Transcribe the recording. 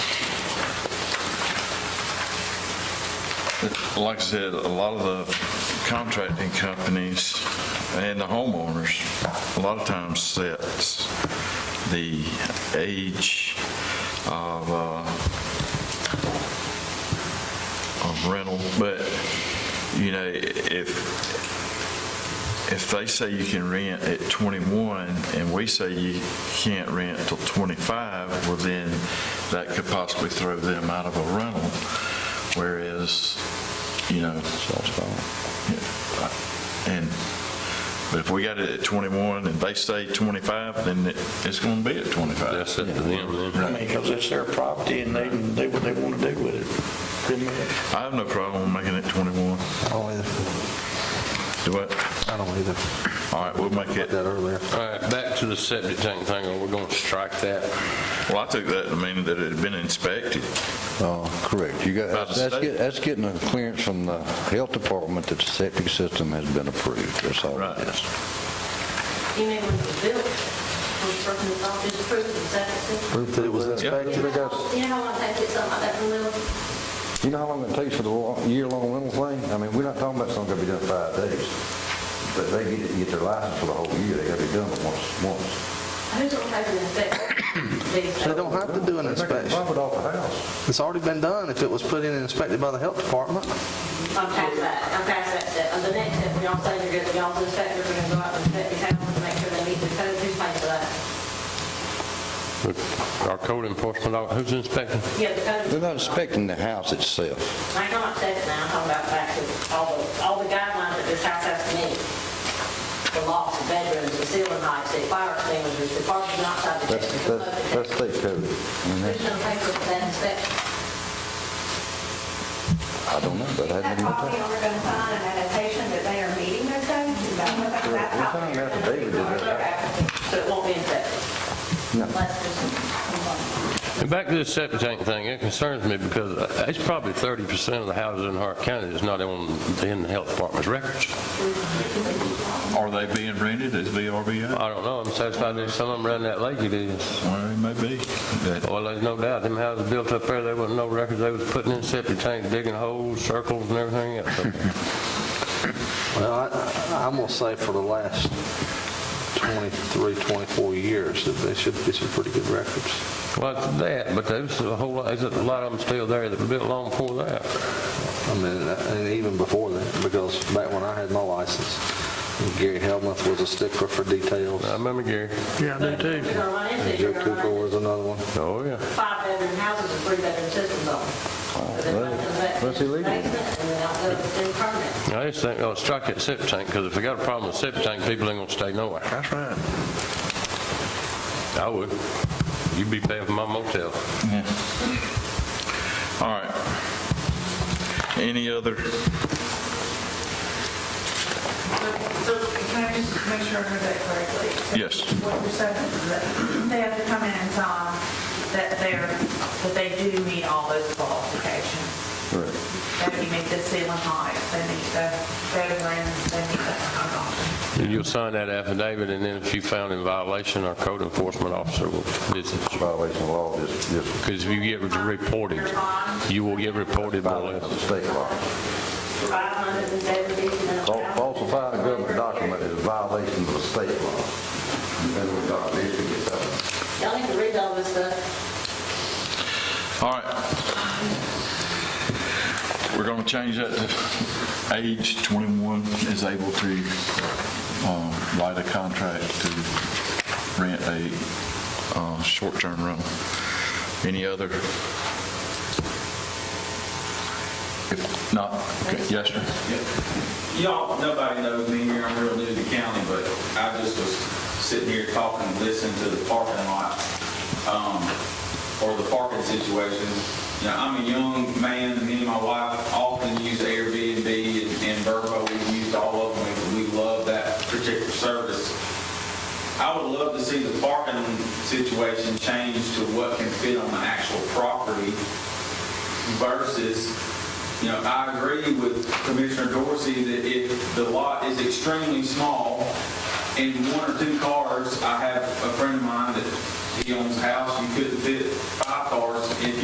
like I said, a lot of the contracting companies and the homeowners, a lot of times sets the age of, uh, of rental, but, you know, if, if they say you can rent at 21, and we say you can't rent till 25, well then, that could possibly throw them out of a rental, whereas, you know. And, but if we got it at 21 and they say 25, then it- it's going to be at 25. That's up to them then. I mean, because it's their property and they can do what they want to do with it. Pretty much. I have no problem making it 21. don't either. Do what? I don't either. All right, we'll make it, That earlier. All right, back to the septic tank thing, are we going to strike that? well, I took that to mean that it had been inspected. Uh, Correct. You By got, the that's, state? get- that's getting a clearance from the health department that the septic system has been approved. That's all Right. it is. You mean when it was built, when the person was off his proof, is that it? Proof that it was inspected. You know how long it takes to get something like that from them? You know how long it takes for the lo- year-long rental thing? I mean, we're not talking about something that be done in five days. But they get it, and get their license for the whole year, they gotta be done it once, once. Who's going to pay for the inspection? They don't have to do an They make a inspection. Profit off the house. It's already been done if it was put in and inspected by the health department. I'm past that, I'm past that step. And the next step, when y'all say you're going to, y'all's inspector, we're going to go out and inspect your house and make sure they meet the code, who's paying for that? Our code enforcement, officer, who's inspecting? Yeah, the code. They're not inspecting the house itself. I know I'm saying it now, I'm talking about back to all the, all the guidelines that this house has to meet. The locks, the bedrooms, the ceiling heights, the fire extinguishers, the parking outside the That's, kitchen. the that's, smoke that's state code. And detector. Who's that's- going to pay for that inspection? I don't know, but I haven't That's even. why we talked. are going to find an annotation that they are meeting their codes. Is that what that- that's We're how talking they're about gonna David be did that. marked. So it won't be infected? No. Unless there's- And back to the septic tank thing, it concerns me because uh, it's probably 30% of the houses in Hart County that's not on, in the health department's records. Are they being rented as VRBO? I don't know, I'm satisfied there's some of them around that lake it is. Well, it may be. That- Well, there's no doubt, them houses built up there, there wasn't no records, they was putting in septic tanks, digging holes, circles and everything else. up there. Well, I- I'm going to say for the last 23, 24 years, that they should be some pretty good records. Well, it's that, but there's a whole lot, there's a lot of them still there that were built long before that. I mean, uh, and even before that, because back when I had my license, Gary Helmuth was a stickler for details. I remember Gary. Yeah, I do You're going to run into, it, you're Joe going to run Cooper into was another one. Oh, yeah. five bedroom houses with three bedroom systems on them. They're not gonna let- that's illegal. Basement and then out the, then permanent. I just think, oh, strike that septic tank, because if they got a problem with septic tank, people ain't gonna stay nowhere. That's right. I would. You'd be paying for my motel. All right. Any other? So can I just make sure I heard that correctly? Yes. What you're saying is that they have to come in and sign that they're, that they do meet all those qualifications. That you meet the ceiling height, they meet the bedrooms, they meet the, You'll sign that affidavit, and then if you found in violation, our code enforcement officer will visit you. Violation of law, this, this Because if you get reported, you will get reported by violation law. of state law. Five hundred and seventy. Fal- Falsifying a government document is a violation of the state law. Federal document, it should be done. Y'all need to read all this stuff. All right. We're going to change that to age 21 is able to um, write a contract to rent a uh, short-term rental. Any other? If not, okay, yes, sir. Y'all, nobody knows me here, I'm real new to the county, but I just was sitting here talking, listening to the parking lot, um, or the parking situation. You know, I'm a young man, me and my wife often use Airbnb and and Verbo, we've used all of them, we we love that particular service. I would love to see the parking situation change to what can fit on the actual property versus, you know, I agree with Commissioner Dorsey that if the lot is extremely small and one or two cars, I have a friend of mine that he owns a house, you couldn't fit five cars if